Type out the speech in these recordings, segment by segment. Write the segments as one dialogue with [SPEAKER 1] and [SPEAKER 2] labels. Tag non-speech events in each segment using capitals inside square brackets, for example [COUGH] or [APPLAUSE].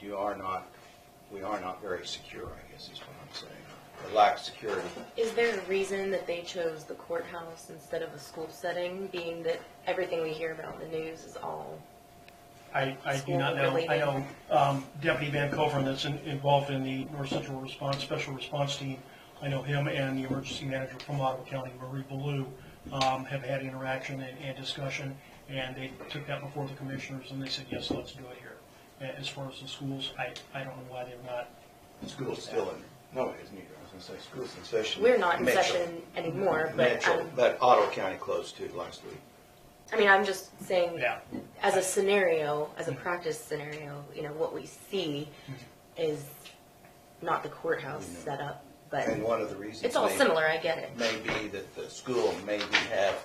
[SPEAKER 1] you are not, we are not very secure, I guess is what I'm saying. We lack security.
[SPEAKER 2] Is there a reason that they chose the courthouse instead of a school setting, being that everything we hear about in the news is all?
[SPEAKER 3] I, I do not know. I know um, Deputy Van Coveren that's in- involved in the North Central Response, Special Response Team. I know him and the emergency manager from Ottawa County, Marie Ballou, um, have had interaction and, and discussion, and they took that before the commissioners, and they said, yes, let's do it here. A- As far as the schools, I, I don't know why they're not.
[SPEAKER 1] School's still in, no, it isn't either. I was gonna say, school's in session.
[SPEAKER 2] We're not in
[SPEAKER 1] Mitchell.
[SPEAKER 2] session anymore, but,
[SPEAKER 1] Mitchell,
[SPEAKER 2] um,
[SPEAKER 1] but Otto County closed too last week.
[SPEAKER 2] I mean, I'm just saying,
[SPEAKER 3] Yeah.
[SPEAKER 2] as a scenario, as a practice scenario, you know, what we see is not the courthouse
[SPEAKER 1] We know.
[SPEAKER 2] setup, but
[SPEAKER 1] And one of the reasons.
[SPEAKER 2] it's all
[SPEAKER 1] they-
[SPEAKER 2] similar, I get it.
[SPEAKER 1] may be that the school maybe have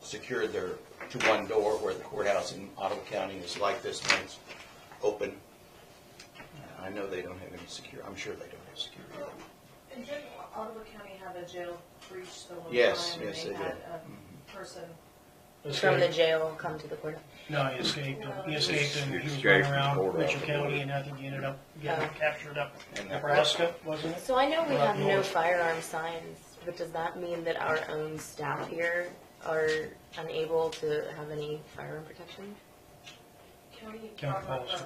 [SPEAKER 1] secured their, to one door where the courthouse in Ottawa County is like this and it's open. Uh, I know they don't have any secure, I'm sure they don't have security.
[SPEAKER 4] And did Ottawa County have a jail breach the one time?
[SPEAKER 1] Yes,
[SPEAKER 4] and
[SPEAKER 1] yes, they
[SPEAKER 4] had
[SPEAKER 1] did. Mm-hmm.
[SPEAKER 4] a Person,
[SPEAKER 2] From the jail, come to the courthouse.
[SPEAKER 3] No, he escaped, he escaped, and he was
[SPEAKER 5] Escaped
[SPEAKER 3] running
[SPEAKER 5] from court
[SPEAKER 3] around Mitchell
[SPEAKER 5] afterward.
[SPEAKER 3] County, and I think he ended up getting
[SPEAKER 2] Oh.
[SPEAKER 3] captured up
[SPEAKER 1] And that-
[SPEAKER 3] Nebraska, wasn't it?
[SPEAKER 2] So I know we
[SPEAKER 3] Well,
[SPEAKER 2] have no
[SPEAKER 3] yours.
[SPEAKER 2] firearm signs, but does that mean that our own staff here are unable to have any firearm protection?
[SPEAKER 4] county
[SPEAKER 3] County
[SPEAKER 4] property,
[SPEAKER 3] policy.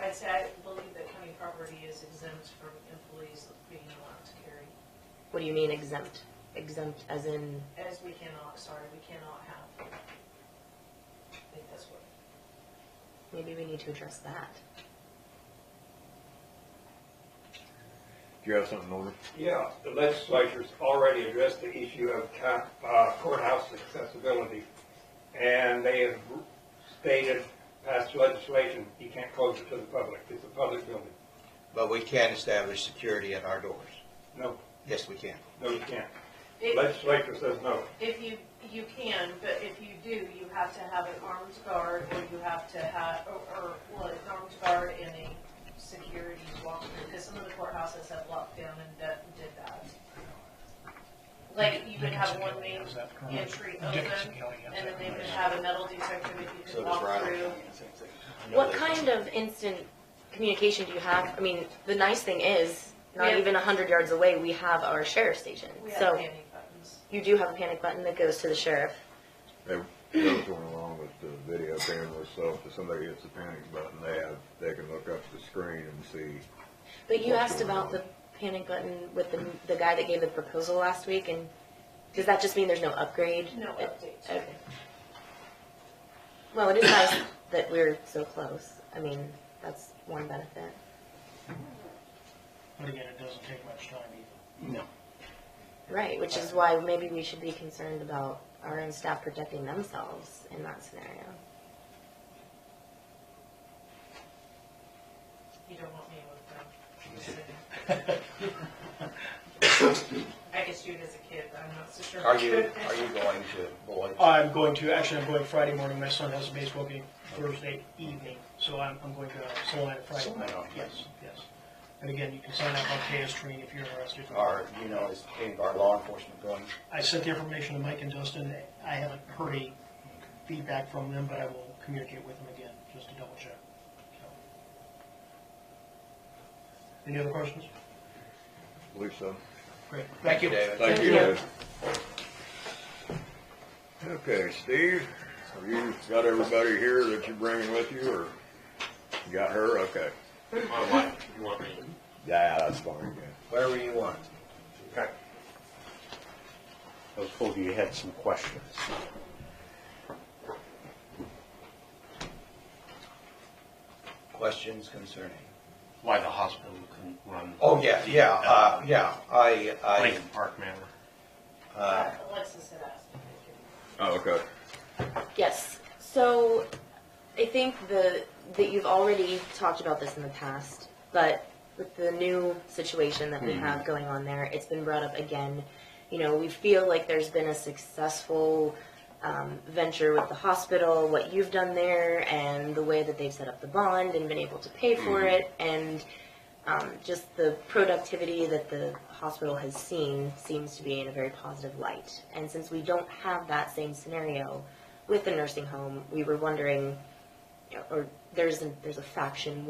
[SPEAKER 4] I'd say I believe that county property is exempt from employees being allowed to carry,
[SPEAKER 2] What do you mean exempt? Exempt as in,
[SPEAKER 4] as we cannot, sorry, we cannot have. I think that's what,
[SPEAKER 2] maybe we need to address that.
[SPEAKER 5] Do you have something, Norman?
[SPEAKER 6] Yeah, the legislature's already addressed the issue of co- uh, courthouse accessibility, and they have stated, passed legislation, you can't close it to the public, it's a public building.
[SPEAKER 1] But we can establish security at our doors.
[SPEAKER 6] No,
[SPEAKER 1] Yes, we can.
[SPEAKER 6] no, you can't.
[SPEAKER 4] if,
[SPEAKER 6] Legislature says no.
[SPEAKER 4] if you, you can, but if you do, you have to have an armed guard, or you have to have, or, or, well, an armed guard and a security walkthrough, because some of the courthouses have locked down and that- did that. Like, you would have
[SPEAKER 3] Dickinson
[SPEAKER 4] one
[SPEAKER 3] County
[SPEAKER 4] main
[SPEAKER 3] has that current.
[SPEAKER 4] entry
[SPEAKER 3] Dickinson
[SPEAKER 4] open,
[SPEAKER 3] County has
[SPEAKER 4] and then
[SPEAKER 3] that
[SPEAKER 4] they would
[SPEAKER 3] current.
[SPEAKER 4] have a metal detector that you
[SPEAKER 1] So does
[SPEAKER 4] could walk
[SPEAKER 1] Riley.
[SPEAKER 4] through.
[SPEAKER 1] Same thing. I know
[SPEAKER 2] What
[SPEAKER 1] they-
[SPEAKER 2] kind of instant communication do you have? I mean, the nice thing is,
[SPEAKER 4] We
[SPEAKER 2] not
[SPEAKER 4] have-
[SPEAKER 2] even a hundred yards away, we have our sheriff's station.
[SPEAKER 4] We have
[SPEAKER 2] So
[SPEAKER 4] panic buttons.
[SPEAKER 2] you do have a panic button that goes to the sheriff.
[SPEAKER 5] That goes along with the video camera stuff, if somebody hits the panic button, they have, they can look up the screen and see.
[SPEAKER 2] But you
[SPEAKER 5] What's
[SPEAKER 2] asked
[SPEAKER 5] going
[SPEAKER 2] about
[SPEAKER 5] on?
[SPEAKER 2] the panic button with the, the guy that gave the proposal last week, and does that just mean there's no upgrade?
[SPEAKER 4] No
[SPEAKER 2] It-
[SPEAKER 4] update.
[SPEAKER 2] Okay. Well, it is nice that we're so close. I mean, that's one benefit.
[SPEAKER 3] But again, it doesn't take much time either.
[SPEAKER 1] No.
[SPEAKER 2] Right, which is why maybe we should be concerned about our own staff protecting themselves in that scenario.
[SPEAKER 4] You don't want me with them.
[SPEAKER 1] [LAUGHS]
[SPEAKER 4] I could shoot as a kid, but I'm not so sure.
[SPEAKER 1] Are you, are you going to Boyd?
[SPEAKER 7] Uh,
[SPEAKER 3] I'm going to, actually, I'm going Friday morning, my son has a baseball game Thursday evening, so I'm, I'm going to Solana Friday
[SPEAKER 1] Solana.
[SPEAKER 3] morning. Yes, yes. And again, you can sign up on KS Training if you're interested.
[SPEAKER 1] Or, you know, is any of our law enforcement going?
[SPEAKER 3] I sent the information to Mike and Justin, I haven't heard any feedback from them, but I will communicate with them again, just to double check. So. Any other questions?
[SPEAKER 5] Believe so.
[SPEAKER 3] Great.
[SPEAKER 1] Thank you, David.
[SPEAKER 5] Thank
[SPEAKER 2] you.
[SPEAKER 5] you. Okay, Steve, have you got everybody here that you're bringing with you, or you got her? Okay.
[SPEAKER 7] My wife, you want me?
[SPEAKER 5] Yeah, that's fine, yeah.
[SPEAKER 1] Wherever you want.
[SPEAKER 7] Okay. I was told you had some questions.
[SPEAKER 1] Questions concerning?
[SPEAKER 7] Why the hospital couldn't run?
[SPEAKER 1] Oh, yeah, yeah, uh, yeah, I, I,
[SPEAKER 7] Lincoln Park manner.
[SPEAKER 1] uh,
[SPEAKER 4] Alexis had asked. if they could-
[SPEAKER 5] Oh, okay.
[SPEAKER 2] Yes, so I think the, that you've already talked about this in the past, but with the new situation that we have going on there, it's been brought up again. You know, we feel like there's been a successful um, venture with the hospital, what you've done there, and the way that they've set up the bond and been able to pay for it, and um, just the productivity that the hospital has seen seems to be in a very positive light. And since we don't have that same scenario with the nursing home, we were wondering, you know, or there's a, there's a faction